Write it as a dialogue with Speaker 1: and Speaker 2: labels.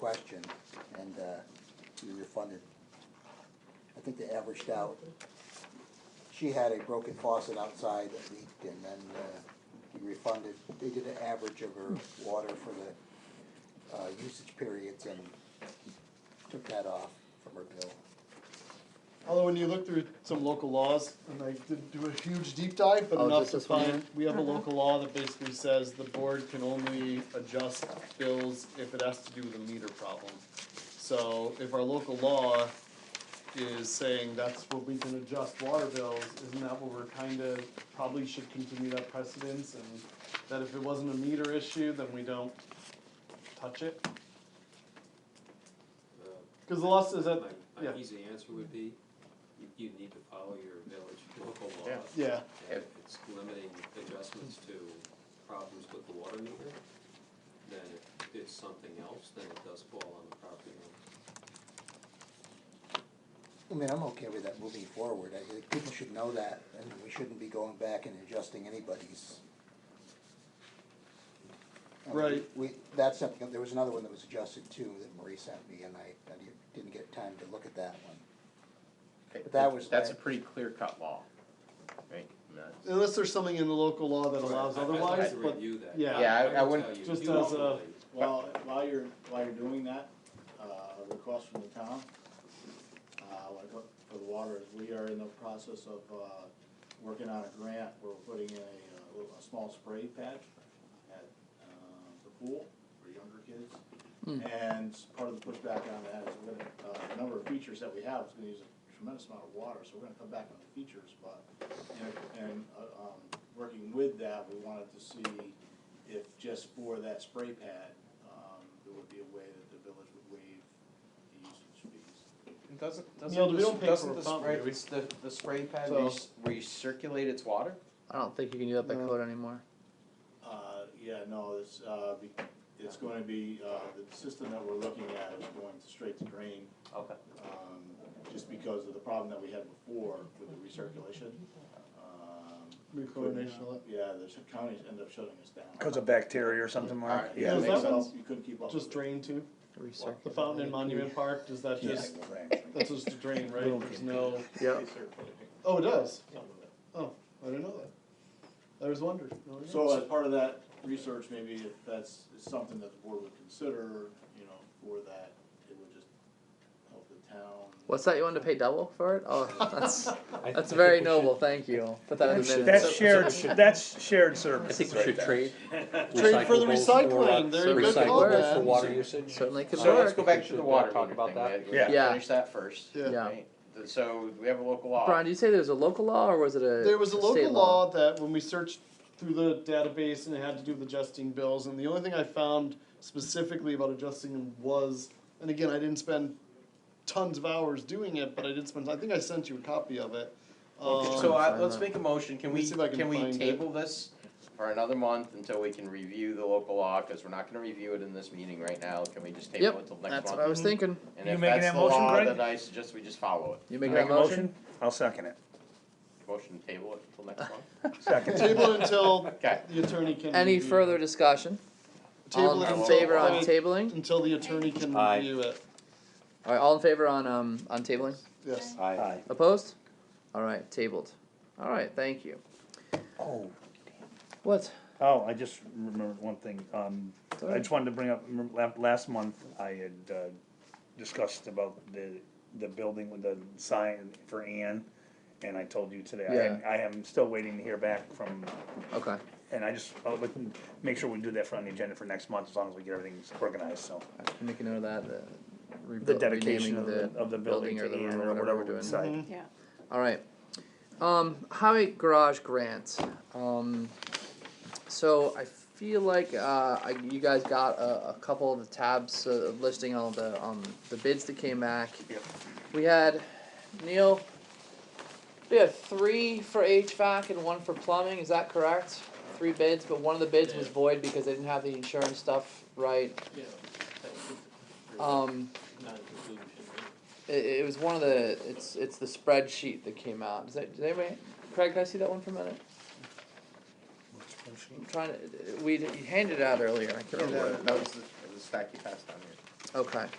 Speaker 1: question, and uh, we refunded. I think they averaged out, she had a broken faucet outside that leaked, and then uh, we refunded. They did an average of her water for the uh, usage periods and took that off from her bill.
Speaker 2: Although when you look through some local laws, and I didn't do a huge deep dive, but
Speaker 1: Oh, is
Speaker 2: enough
Speaker 1: this
Speaker 2: to
Speaker 1: this one here?
Speaker 2: find, we have a local law that basically says the board can only adjust bills if it has to do with a meter problem. So if our local law is saying that's what we can adjust water bills, isn't that what we're kinda, probably should continue that precedence and that if it wasn't a meter issue, then we don't touch it?
Speaker 3: Uh,
Speaker 2: Cause the law says that,
Speaker 3: My,
Speaker 2: yeah,
Speaker 3: my easy answer would be, you, you need to follow your village local law.
Speaker 2: yeah,
Speaker 3: And if it's limiting adjustments to problems with the water meter, then if it's something else, then it does fall on the property owner.
Speaker 1: I mean, I'm okay with that moving forward. I think people should know that, and we shouldn't be going back and adjusting anybody's. I mean,
Speaker 2: Right.
Speaker 1: We, that's something, there was another one that was adjusted too that Marie sent me, and I, I didn't get time to look at that one.
Speaker 4: Okay,
Speaker 1: But that was
Speaker 4: That's a
Speaker 1: that-
Speaker 4: pretty clear-cut law, right? And that's-
Speaker 2: unless there's something in the local law that allows
Speaker 3: I- I'd like
Speaker 2: otherwise,
Speaker 3: to
Speaker 2: but
Speaker 3: review that.
Speaker 2: yeah.
Speaker 4: Yeah, I- I
Speaker 3: will
Speaker 4: wouldn't-
Speaker 3: tell you,
Speaker 2: Just
Speaker 3: you
Speaker 2: as a-
Speaker 3: ultimately-
Speaker 5: While, while you're, while you're doing that, uh, a request from the town, uh, like uh, for the water, is we are in the process of, uh, working on a grant, we're putting in a, uh, little- a small spray patch at, uh, the pool for younger kids. And s- part of the pushback on that is we're gonna, uh, the number of features that we have is gonna use a tremendous amount of water, so we're gonna come back on the features, but, and, and, uh, um, working with that, we wanted to see if just for that spray pad, um, there would be a way that the village would waive the usage fees.
Speaker 6: And Doesn't,
Speaker 2: Neil,
Speaker 6: doesn't,
Speaker 2: we
Speaker 6: this-
Speaker 2: don't pay for
Speaker 6: doesn't
Speaker 2: a
Speaker 6: the
Speaker 2: pump,
Speaker 6: spray,
Speaker 2: do we?
Speaker 6: the, the spray pad where you,
Speaker 2: So-
Speaker 6: s- where you circulate its water?
Speaker 7: I don't think you can do that by
Speaker 2: No.
Speaker 7: code anymore.
Speaker 5: Uh, yeah, no, it's, uh, be, it's gonna be, uh, the system that we're looking at is going straight to drain,
Speaker 6: Okay.
Speaker 5: um, just because of the problem that we had before with the recirculation. Um,
Speaker 2: Recoordination of it.
Speaker 5: Yeah, the sh- counties end up shutting us down.
Speaker 8: Because of bacteria or something, Mark?
Speaker 5: Alright,
Speaker 8: Yeah.
Speaker 5: you
Speaker 2: Does that
Speaker 5: couldn't keep
Speaker 2: one-
Speaker 5: up- You couldn't keep up.
Speaker 2: Just
Speaker 5: with it.
Speaker 2: drain too?
Speaker 7: Recirculate.
Speaker 2: The fountain in Monument Park, does that
Speaker 5: Yeah.
Speaker 2: just, that's just a drain, right? There's no,
Speaker 7: Yeah.
Speaker 5: Recirculating.
Speaker 2: oh, it does?
Speaker 5: Some of it.
Speaker 2: Oh, I didn't know that. I was wondering. No, I didn't know.
Speaker 5: So as part of that research, maybe if that's something that the board would consider, you know, for that, it would just help the town.
Speaker 7: What's that? You want to pay double for it? Oh, that's that's very noble. Thank you. Put that in the minutes.
Speaker 8: That's shared, that's shared
Speaker 9: I
Speaker 8: service.
Speaker 9: think we should trade.
Speaker 2: Trade for the
Speaker 9: recyclables
Speaker 2: recycling, they're a
Speaker 9: recyclables
Speaker 2: good call,
Speaker 9: For
Speaker 2: man.
Speaker 9: water usage.
Speaker 7: Certainly could
Speaker 4: So let's
Speaker 7: work.
Speaker 4: go back to the water
Speaker 9: Talk
Speaker 4: meter
Speaker 9: about
Speaker 4: thing,
Speaker 9: that.
Speaker 4: we- we
Speaker 8: Yeah.
Speaker 7: Yeah.
Speaker 4: finish that first.
Speaker 2: Yeah.
Speaker 7: Yeah.
Speaker 4: right? Th- So we have a local law.
Speaker 7: Brian, did you say there's a local law or was it a
Speaker 2: There was a
Speaker 7: state
Speaker 2: local law that when we searched through the database and it had to do with adjusting bills, and the only thing I found specifically about adjusting them was, and again, I didn't spend tons of hours doing it, but I did spend, I think I sent you a copy of it. Um,
Speaker 4: So I,
Speaker 7: find
Speaker 4: let's
Speaker 7: that.
Speaker 4: make a motion, can
Speaker 2: Let me
Speaker 4: we,
Speaker 2: see if I can
Speaker 4: can we
Speaker 2: find it.
Speaker 4: table this for another month until we can review the local law? Cause we're not gonna review it in this meeting right now, can we just table
Speaker 7: Yep,
Speaker 4: it till next month?
Speaker 7: That's what I was thinking.
Speaker 4: And
Speaker 8: You
Speaker 4: if
Speaker 8: making
Speaker 4: that's
Speaker 8: that
Speaker 4: the
Speaker 8: motion,
Speaker 4: law,
Speaker 8: Greg?
Speaker 4: then I suggest we just follow it.
Speaker 7: You make
Speaker 8: Make
Speaker 7: that
Speaker 8: a
Speaker 7: motion?
Speaker 8: motion? I'll second it.
Speaker 4: Motion to table it till next month?
Speaker 8: Second.
Speaker 2: Table it until
Speaker 4: Okay.
Speaker 2: the attorney can.
Speaker 7: Any
Speaker 4: Mm-hmm.
Speaker 2: review.
Speaker 7: further discussion?
Speaker 2: Table
Speaker 7: all
Speaker 2: it
Speaker 7: in
Speaker 2: until-
Speaker 7: favor on
Speaker 2: uh,
Speaker 7: tabling?
Speaker 2: Until the attorney can
Speaker 9: Aye.
Speaker 2: review it,
Speaker 7: All right, all in favor on um on tabling?
Speaker 2: yes.
Speaker 9: Aye.
Speaker 8: Aye.
Speaker 7: Opposed? All right, tabled. All right, thank you.
Speaker 8: Oh,
Speaker 7: What?
Speaker 8: oh, I just remembered one thing, um, I just wanted to bring up, remember la- last month, I had, uh, discussed about the, the building with the sign for Ann, and I told you today, I am,
Speaker 7: Yeah.
Speaker 8: I am still waiting to hear back from,
Speaker 7: Okay.
Speaker 8: and I just, I'll look and make sure we do that for on the agenda for next month, as long as we get everything organized, so.
Speaker 7: Make a note of that. uh,
Speaker 8: The
Speaker 7: rebuil-
Speaker 8: dedication
Speaker 7: renaming
Speaker 8: of the, of the building
Speaker 7: or the room
Speaker 8: to Ann, or whatever
Speaker 7: we're
Speaker 8: we
Speaker 7: doing.
Speaker 8: decide.
Speaker 10: Yeah.
Speaker 7: All right. Um, highway garage grant. Um, so I feel like uh, I, you guys got a, a couple of the tabs uh, listing all the um, the bids that came back.
Speaker 8: Yep.
Speaker 7: We had Neil. We had three for HVAC and one for plumbing. Is that correct? Three bids, but one of the bids was
Speaker 3: Yeah.
Speaker 7: void because they didn't have the insurance stuff right.
Speaker 3: Yeah.
Speaker 7: Um,
Speaker 3: Non-conclusion,
Speaker 7: It, it was one of the it's it's the spreadsheet that came out. Does that did anybody Craig? Can I see that one for a minute? I'm trying to. We you handed it out earlier. I can't remember.
Speaker 4: That
Speaker 7: what it-
Speaker 4: was the, the stack you passed down here.
Speaker 7: Okay.